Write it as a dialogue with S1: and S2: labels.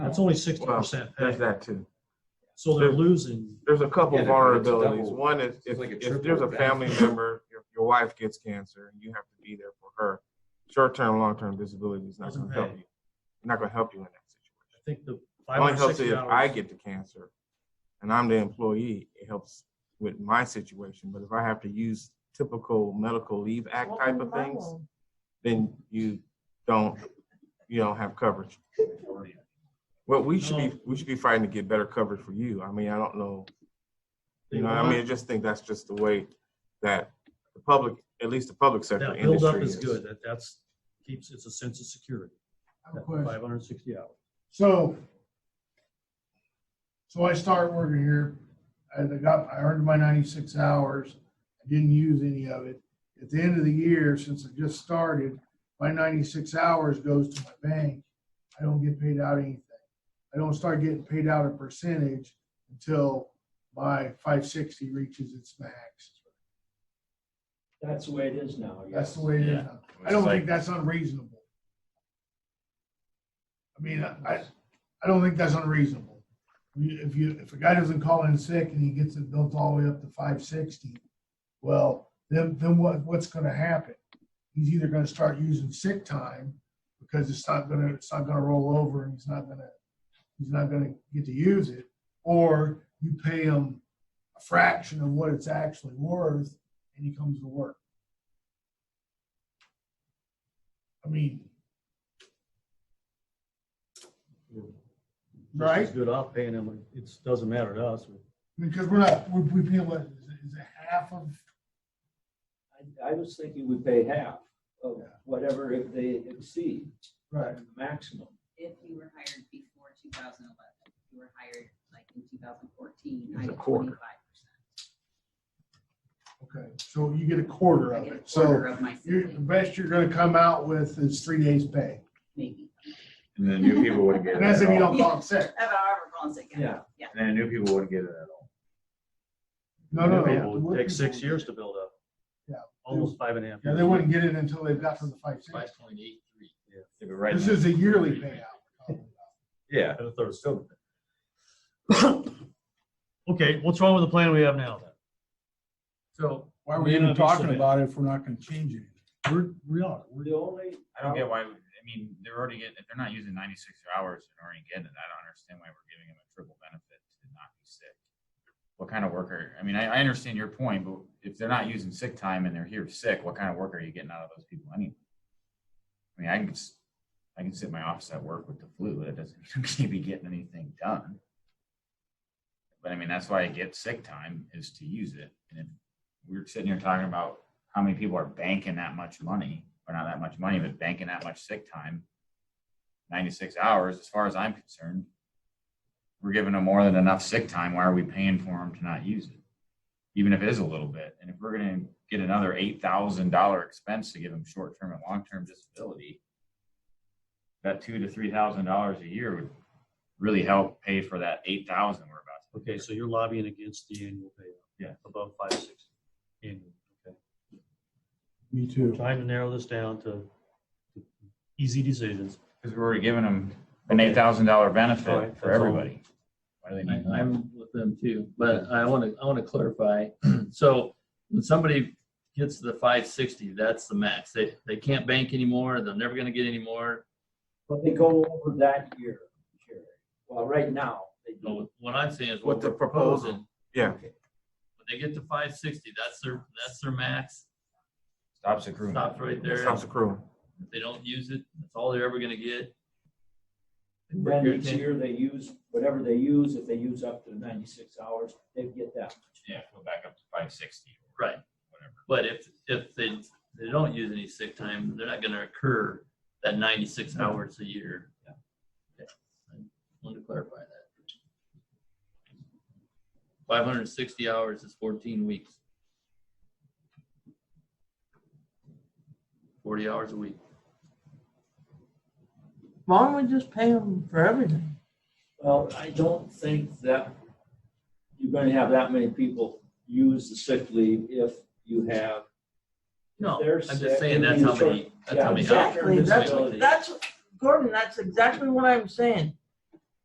S1: It's only sixty percent
S2: There's
S1: pay,
S2: that too.
S1: so they're losing.
S2: There's a couple
S3: Yeah, but it's
S2: vulnerabilities.
S3: double-
S2: One is if,
S3: it's like a
S2: if
S3: triple
S2: there's a
S3: that.
S2: family member, your, your wife gets cancer and you have to be there for her. Short-term, long-term disability is not
S1: Doesn't
S2: going to help
S1: pay.
S2: you. Not going to help you in that
S1: I think the
S2: situation. It only
S1: five hundred
S2: helps you
S1: sixty
S2: if I
S1: dollars.
S2: get the cancer and I'm the employee. It helps with my situation. But if I have to use typical medical leave act type of things, then you don't, you don't have coverage. Well, we should be, we should be fighting to get better coverage for you. I mean, I don't know. You know, I mean, I just think that's just the way that the public, at least the public sector
S1: That buildup
S2: industry
S1: is good, that that's, keeps, it's a sense of security,
S4: I have a question.
S1: five hundred and sixty hours.
S4: So, so I start working here, I I got, I earned my ninety-six hours, I didn't use any of it. At the end of the year, since I just started, my ninety-six hours goes to my bank. I don't get paid out anything. I don't start getting paid out a percentage until my five sixty reaches its max.
S5: That's the way it is now. yes.
S4: That's the way it is. now. I don't think that's unreasonable. I mean, I, I don't think that's unreasonable. You- If you, if a guy doesn't call in sick and he gets it built all the way up to five sixty, well, then, then what, what's gonna happen? He's either gonna start using sick time because it's not gonna, it's not gonna roll over and he's not gonna, he's not gonna get to use it. Or you pay him a fraction of what it's actually worth and he comes to work. I mean,
S1: Just
S4: Right.
S1: as Good off paying them, it doesn't matter to us.
S4: Because we're not, we're, we pay what, is it, is it half of,
S5: I, I was thinking we pay half of
S4: Yeah.
S5: whatever if they exceed
S4: right,
S5: the maximum.
S6: if you were hired before two thousand eleven, if you were hired like in two thousand fourteen,
S2: It's
S6: I
S2: a
S6: get
S2: quarter.
S6: twenty-five percent.
S4: okay, so you get a quarter
S6: I
S4: of
S6: get a
S4: it,
S6: quarter
S4: so
S6: of my
S4: you're,
S6: sick
S4: the
S6: leave,
S4: best you're gonna come out with is three days pay.
S6: maybe.
S7: And then new people wouldn't get it
S4: And that's
S7: at
S4: if you
S7: all.
S4: don't call sick.
S6: Have an hour gone sick.
S5: Yeah.
S7: And then new people wouldn't get it at all.
S4: No, no,
S1: It
S4: no.
S1: would
S4: the
S1: take six
S4: people-
S1: years to build up.
S4: Yeah.
S1: Almost five and a half.
S4: Yeah, they
S1: years.
S4: wouldn't get it until they've got to the five, six.
S3: Five point eight three.
S7: If it right
S4: This
S7: now-
S4: is a yearly payout.
S7: Yeah.
S1: And a third still. Okay, what's wrong with the plan we have now then?
S4: So why
S1: are we even talking about
S4: it if we're not gonna change it?
S1: We're, we are, we're
S5: The only.
S8: I don't get why, I mean, they're already getting, if they're not using ninety-six hours and already getting it, I don't understand why we're giving them a triple benefit to not be sick. What kind of worker, I mean, I, I understand your point, but if they're not using sick time and they're here sick, what kind of work are you getting out of those people anyway? I mean, I can, s- I can sit in my office at work with the flu, that doesn't mean I'm gonna be getting anything done. But I mean, that's why I get sick time is to use it. And if we're sitting here talking about how many people are banking that much money, or not that much money, but banking that much sick time, 96 hours, as far as I'm concerned, we're giving them more than enough sick time. Why are we paying for them to not use it? Even if it is a little bit. And if we're going to get another $8,000 expense to give them short term and long term disability, that two to $3,000 a year would really help pay for that 8000 we're about to
S1: Okay, so you're lobbying against the annual payout?
S8: Yeah.
S1: Above five sixty annual, okay.
S4: Me too.
S1: Trying to narrow this down to easy decisions.
S8: Because we're already giving them an eight thousand dollar
S1: All right,
S8: benefit for
S1: that's all.
S8: everybody. Why do they need
S2: Uh-huh.
S3: I-
S8: that?
S3: I'm with them too, but I want to, I want to clarify. So when somebody gets to the five sixty, that's the max. They, they can't bank anymore. They're never going to get any more.
S5: But they go over that year, Jerry. Well, right now, they do.
S3: So What I'm saying is
S2: What
S3: what
S2: the
S3: we're
S2: proposal-
S3: proposing.
S2: Yeah.
S3: When they get to five sixty, that's their, that's their max.
S8: Stops accruing.
S3: Stops right
S2: is.
S3: there.
S2: Sounds cruel.
S3: If they don't use it, that's all they're ever going to get.
S5: Then each year they use, whatever they use, if they use up to ninety-six hours, they get that.
S8: Yeah, go back up to five sixty.
S3: Right.
S8: Whatever.
S3: But if, if they, they don't use any sick time, they're not gonna accrue that ninety-six hours a year.
S5: Yeah.
S3: Okay. I Wanted to clarify that. Five hundred and sixty hours is fourteen weeks. Forty hours a week.
S9: Why don't we just pay them for everything?
S5: Well, I don't think that you're gonna have that many people use the sick leave if you have.
S3: No,
S5: They're
S3: I'm
S5: sick.
S3: just saying that's how many, that's how
S5: Yeah,
S3: many
S9: exactly.
S3: hours.
S9: That's- Gordon, that's exactly what I'm saying.